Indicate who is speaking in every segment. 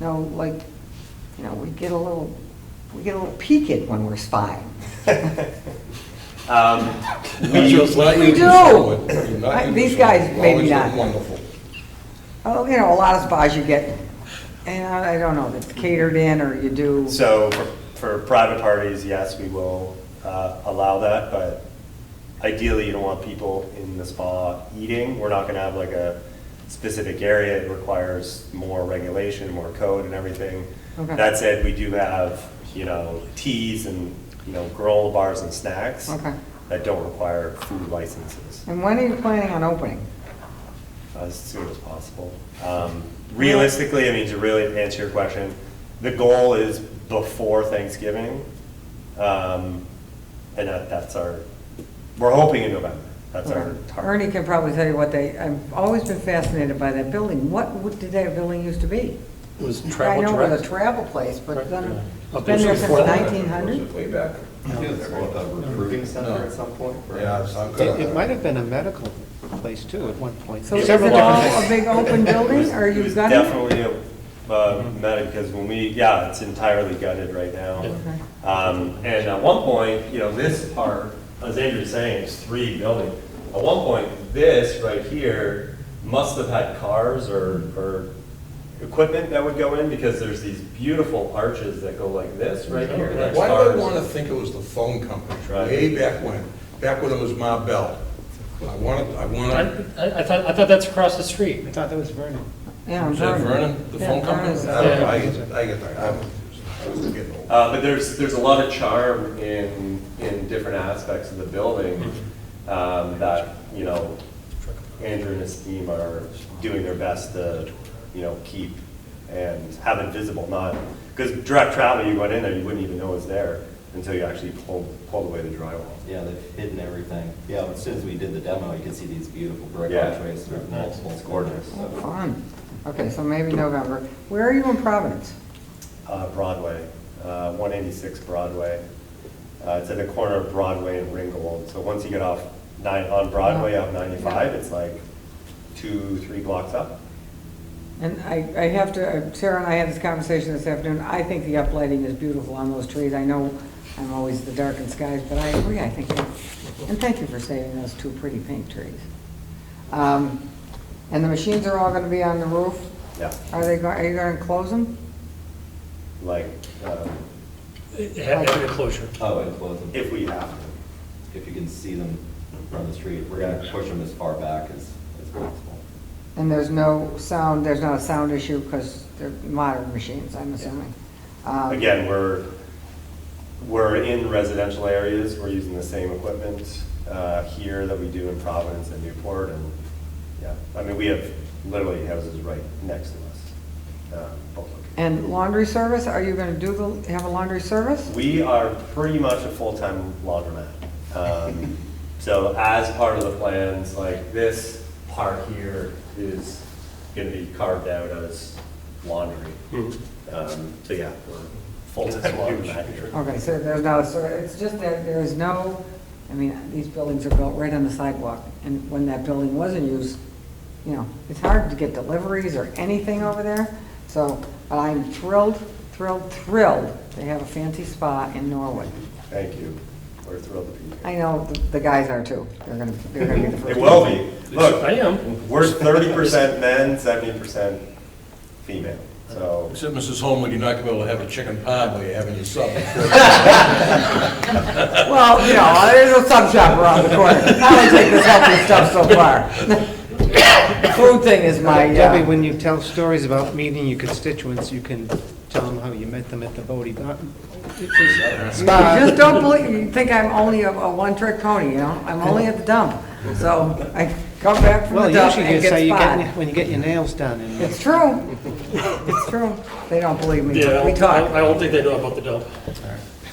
Speaker 1: No, like, you know, we get a little, we get a little peaked when we're spying.
Speaker 2: Um,
Speaker 3: Not just
Speaker 2: we-
Speaker 3: like
Speaker 1: we
Speaker 3: you
Speaker 1: do.
Speaker 3: saw it. You're not
Speaker 1: I-
Speaker 3: you
Speaker 1: these
Speaker 3: saw it.
Speaker 1: guys
Speaker 3: You
Speaker 1: maybe
Speaker 3: always look
Speaker 1: not.
Speaker 3: Wonderful.
Speaker 1: Oh, you know, a lot of spas you get, and I don't know, it's catered in or you do.
Speaker 2: So for- for private parties, yes, we will uh, allow that, but ideally, you don't want people in the spa eating. We're not going to have like a specific area. It requires more regulation, more code and everything.
Speaker 1: Okay.
Speaker 2: That said, we do have, you know, teas and, you know, granola bars and snacks
Speaker 1: Okay.
Speaker 2: that don't require food licenses
Speaker 1: And when are you planning on opening?
Speaker 2: uh, as soon as possible. Um, Realistically, I mean, to really answer your question, the goal is before Thanksgiving. Um, And that- that's our, we're hoping in November. That's our
Speaker 1: Ernie
Speaker 2: target.
Speaker 1: can probably tell you what they, I've always been fascinated by that building. What, what did that building used to be?
Speaker 4: It was
Speaker 1: I
Speaker 4: travel
Speaker 1: know it was a
Speaker 4: direct.
Speaker 1: travel place, but then,
Speaker 4: Up
Speaker 1: it's been there since
Speaker 4: before that.
Speaker 1: nineteen hundred?
Speaker 5: Way back. Recruiting center at some point?
Speaker 3: Yeah, it's not
Speaker 4: It
Speaker 3: good.
Speaker 4: it might have been a medical place too at one point.
Speaker 1: So is it
Speaker 4: Several
Speaker 1: all
Speaker 4: different
Speaker 1: a
Speaker 4: things.
Speaker 1: big open building, or
Speaker 2: It
Speaker 1: you've
Speaker 2: was
Speaker 1: got it?
Speaker 2: Definitely a, uh, medic, because when we, yeah, it's entirely gutted right now. Um, And at one point, you know, this part, as Andrew was saying, is three buildings. At one point, this right here must have had cars or, or equipment that would go in because there's these beautiful arches that go like this right here. That's
Speaker 3: Why do I
Speaker 2: cars.
Speaker 3: want to think it was the phone company,
Speaker 2: Right.
Speaker 3: way back when, back when it was Ma Bell? I wanted, I wanted,
Speaker 6: I, I thought, I thought that's across the street.
Speaker 4: I thought that was Vernon.
Speaker 1: Yeah,
Speaker 3: is that Vernon, the
Speaker 1: Yeah,
Speaker 3: phone company?
Speaker 1: Vernon's-
Speaker 3: I don't know, I
Speaker 4: Yeah.
Speaker 3: get, I get that, I'm confused. I'm getting old.
Speaker 2: Uh, but there's, there's a lot of charm in, in different aspects of the building, um, that, you know, Andrew and his team are doing their best to, you know, keep and have it visible, not, because direct travel, you went in there, you wouldn't even know it was there until you actually pulled, pulled away the drywall.
Speaker 5: Yeah, they've hidden everything. Yeah, as soon as we did the demo, you could see these beautiful brick
Speaker 2: Yeah.
Speaker 5: archways through multiple corners.
Speaker 1: Oh, Fun. Okay, so maybe November. Where are you in Providence?
Speaker 2: Uh, Broadway, uh, 186 Broadway. Uh, It's at the corner of Broadway and Ringgold. So once you get off nine, on Broadway, off 95, it's like two, three blocks up.
Speaker 1: And I, I have to, uh, Sarah and I had this conversation this afternoon, I think the uplighting is beautiful on those trees. I know I'm always the darkened skies, but I agree, I think, that- and thank you for saving those two pretty pink trees. Um, And the machines are all gonna be on the roof?
Speaker 2: Yeah,
Speaker 1: Are they, go- are you gonna close them?
Speaker 2: like, um,
Speaker 6: Having a closure.
Speaker 5: Oh, and close them.
Speaker 2: if we have to.
Speaker 5: If you can see them from the street, we're gonna push them as far back as, as possible.
Speaker 1: And there's no sound, there's not a sound issue, because they're modern machines, I'm assuming. Um,
Speaker 2: Again, we're, we're in residential areas, we're using the same equipment uh, here that we do in Providence and Newport, and, yeah. I mean, we have literally houses right next to us, uh, both locations.
Speaker 1: And laundry service, are you gonna do the, have a laundry service?
Speaker 2: We are pretty much a full-time laundromat. Um, So as part of the plans, like this part here is going to be carved out as laundry.
Speaker 6: Mm-hmm.
Speaker 2: Um, So yeah, we're full-time laundromat here.
Speaker 1: Okay, so there's no, so it's just that there is no, I mean, these buildings are built right on the sidewalk, and when that building was in use, you know, it's hard to get deliveries or anything over there, so I'm thrilled, thrilled, thrilled to have a fancy spa in Norwood.
Speaker 2: Thank you. We're thrilled to be here.
Speaker 1: I know the- the guys are too, they're gonna, they're gonna be the first.
Speaker 2: It will be.
Speaker 6: I
Speaker 2: Look,
Speaker 6: am.
Speaker 2: we're 30% men, 70% female, so.
Speaker 3: Except, Mrs. Holman, you're not going to be able to have a chicken pie while you're having your supper.
Speaker 1: Well, you know, there's a sub shop around the corner, I don't take this healthy stuff so far. The Food thing is my,
Speaker 4: Debbie,
Speaker 1: uh,
Speaker 4: when you tell stories about meeting your constituents, you can tell them how you met them at the Bodie. Bar-
Speaker 1: You just don't believe, you think I'm only a, a one-trick pony, you know? I'm only at the dump. So I come back from
Speaker 4: Well,
Speaker 1: the dump
Speaker 4: usually you
Speaker 1: and get
Speaker 4: say you get,
Speaker 1: spotted.
Speaker 4: when you get your nails done and.
Speaker 1: It's true. It's true. They don't believe me,
Speaker 6: Yeah,
Speaker 1: but
Speaker 6: I
Speaker 1: we
Speaker 6: don't- I
Speaker 1: talk.
Speaker 6: don't think they know about the dump.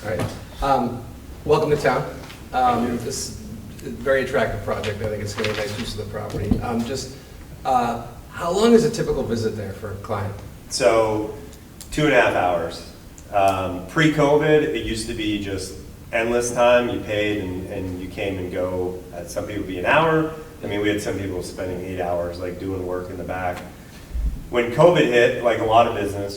Speaker 7: All right. Um, Welcome to town. Um, This is a very attractive project. I think it's going to be a nice use of the property. Um, Just, uh, how long is a typical visit there for a client?
Speaker 2: So, two and a half hours. Um, pre-COVID, it used to be just endless time. You paid and, and you came and go. Uh, some people would be an hour. I mean, we had some people spending eight hours, like doing work in the back. When COVID hit, like a lot of business,